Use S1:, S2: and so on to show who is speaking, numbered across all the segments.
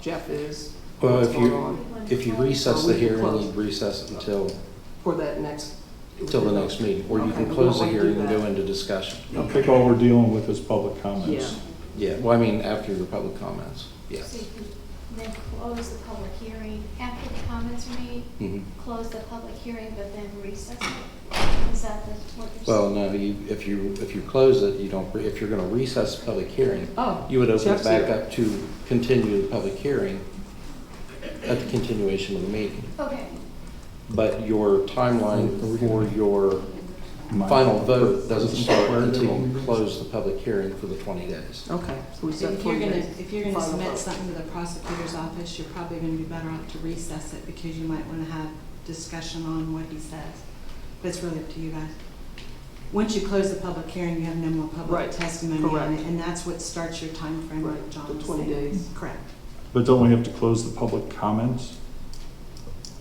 S1: Jeff is,
S2: Well,
S1: what's
S2: if
S1: going
S2: you,
S1: on
S2: if you recess
S1: Or we
S2: the
S1: can
S2: hearing,
S1: close.
S2: you recess it until,
S1: for that next.
S2: till the next meeting, or you
S1: Okay, we
S2: can
S1: don't
S2: close the
S1: wanna do
S2: hearing and
S1: that.
S2: go into discussion.
S3: I think all we're dealing with is public
S1: Yeah,
S3: comments.
S2: Yeah, well, I mean, after your public comments, yeah.
S4: So you can then close the public hearing after the comments are made,
S2: Mhm.
S4: close the public hearing, but then recess it? Is that the, what you're saying?
S2: Well, no, you, if you, if you close it, you don't, if you're gonna recess the public hearing,
S1: oh,
S2: you would open it
S1: Jeff's
S2: back
S1: here.
S2: up to continue the public hearing at the continuation of the meeting.
S4: Okay,
S2: But your timeline for your
S3: My-
S2: final vote doesn't start until you close the public hearing for the twenty days.
S1: okay, so we
S5: So
S1: said
S5: If you're
S1: forty
S5: gonna,
S1: days.
S5: if you're gonna
S1: Final vote.
S5: submit something to the prosecutor's office, you're probably gonna be better off to recess it because you might wanna have discussion on what he says. But it's really up to you guys. Once you close the public hearing, you have no more
S1: Right,
S5: public testimony on
S1: correct.
S5: it, and that's what starts your timeframe,
S1: Right,
S5: like John
S1: the
S5: was
S1: 20
S5: saying.
S1: days.
S5: Correct.
S3: But don't we have to close the public comments?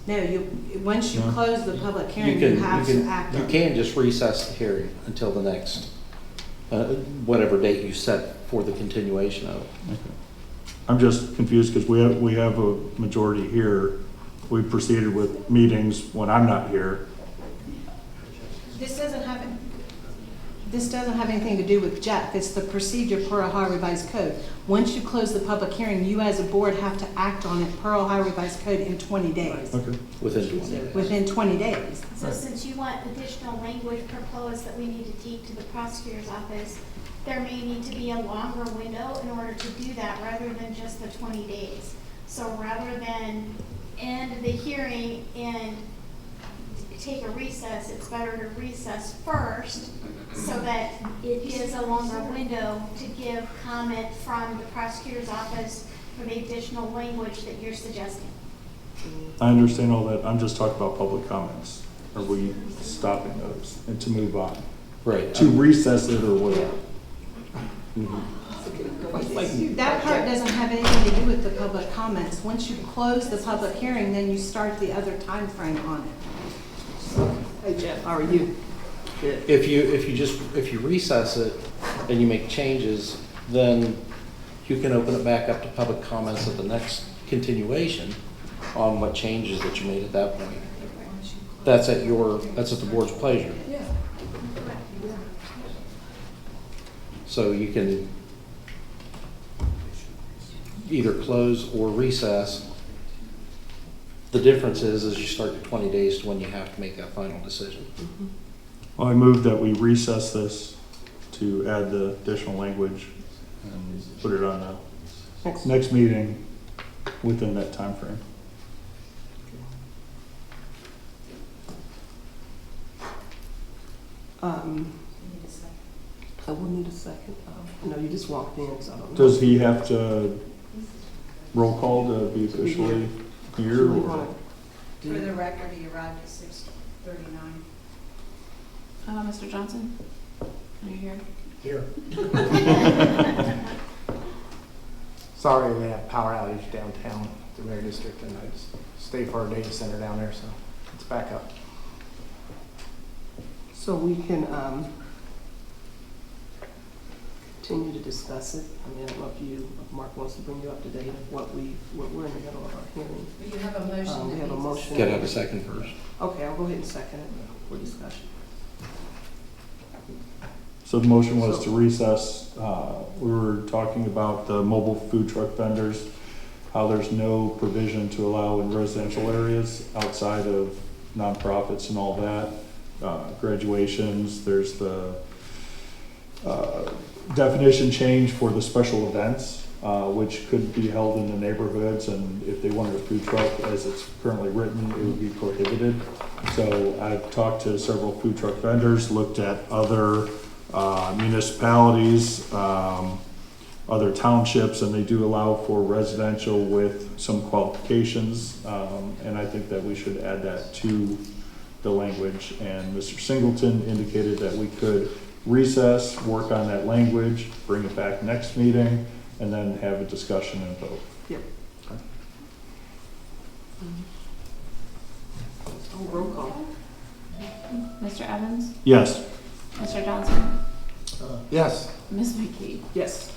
S5: No, you, once you
S3: No.
S5: close the public hearing,
S2: can-
S5: you have
S2: can-
S5: to act on
S2: You
S5: it.
S2: can just recess the hearing until the next, uh, whatever date you set for the continuation of it.
S3: Okay. I'm just confused because we have, we have a majority here. We proceeded with meetings when I'm not here.
S5: This doesn't have, this doesn't have anything to do with Jeff, it's the procedure per Ohio Revised Code. Once you close the public hearing, you as a board have to act on it per Ohio Revised Code in twenty days,
S3: Okay.
S2: Within 20 days.
S5: within twenty days.
S4: so
S3: Right.
S4: since you want additional language proposed that we need to take to the prosecutor's office, there may need to be a longer window in order to do that, rather than just the twenty days. So rather than end the hearing and take a recess, it's better to recess first so that it is a longer window to give comment from the prosecutor's office for the additional language that you're suggesting.
S3: I understand all that. I'm just talking about public comments. Are we stopping those and to move on?
S2: Right.
S3: To recess it or Mm-hmm. whatever?
S5: That part doesn't have anything to do with the public comments. Once you close the public hearing, then you start the other time frame on it.
S1: Hey Jeff, how are you? Good.
S2: If you, if you just, if you recess it and you make changes, then you can open it back up to public comments at the next continuation on what changes that you made at that point. That's at your, that's at the board's pleasure.
S1: Yeah.
S2: So you can either close or recess. The difference is, is you start your twenty days to when you have to make that final decision.
S3: Well, I move that we recess this to add the additional language and put it on the
S1: Next.
S3: next meeting within that time frame.
S1: Um, I will need a second. Oh, No, you just walked in, so I don't know.
S3: Does he have to roll call to be officially here?
S1: Do we wanna
S3: or-
S1: do-
S5: record, he arrived at six thirty-nine.
S6: Uh, Mr. Johnson, are you here?
S7: Sorry, we had a power outage downtown, the Red District, and I just stay for our data center down there, so it's back up.
S1: So we can, um, continue to discuss it. I mean, I don't know if you, if Mark wants to bring you up to date of what we, what we're in the middle of our hearing.
S5: You have a motion
S1: Um, we have a motion.
S2: Gotta have a second first.
S1: Okay, I'll go ahead and second it for discussion.
S3: So the motion was to recess, uh, we were talking about the mobile food truck vendors, how there's no provision to allow in residential areas outside of nonprofits and all that. Uh, graduations, there's the, uh, definition change for the special events, uh, which could be held in the neighborhoods, and if they wanted a food truck, as it's currently written, it would be prohibited. So I've talked to several food truck vendors, looked at other uh, municipalities, um, other townships, and they do allow for residential with some qualifications. um, And I think that we should add that to the language. And Mr. Singleton indicated that we could recess, work on that language, bring it back next meeting, and then have a discussion and vote.
S1: Oh, roll call.
S6: Mr. Evans,
S3: Yes,
S6: Mr. Johnson,
S7: Yes,
S6: Ms. McKee.
S1: Yes.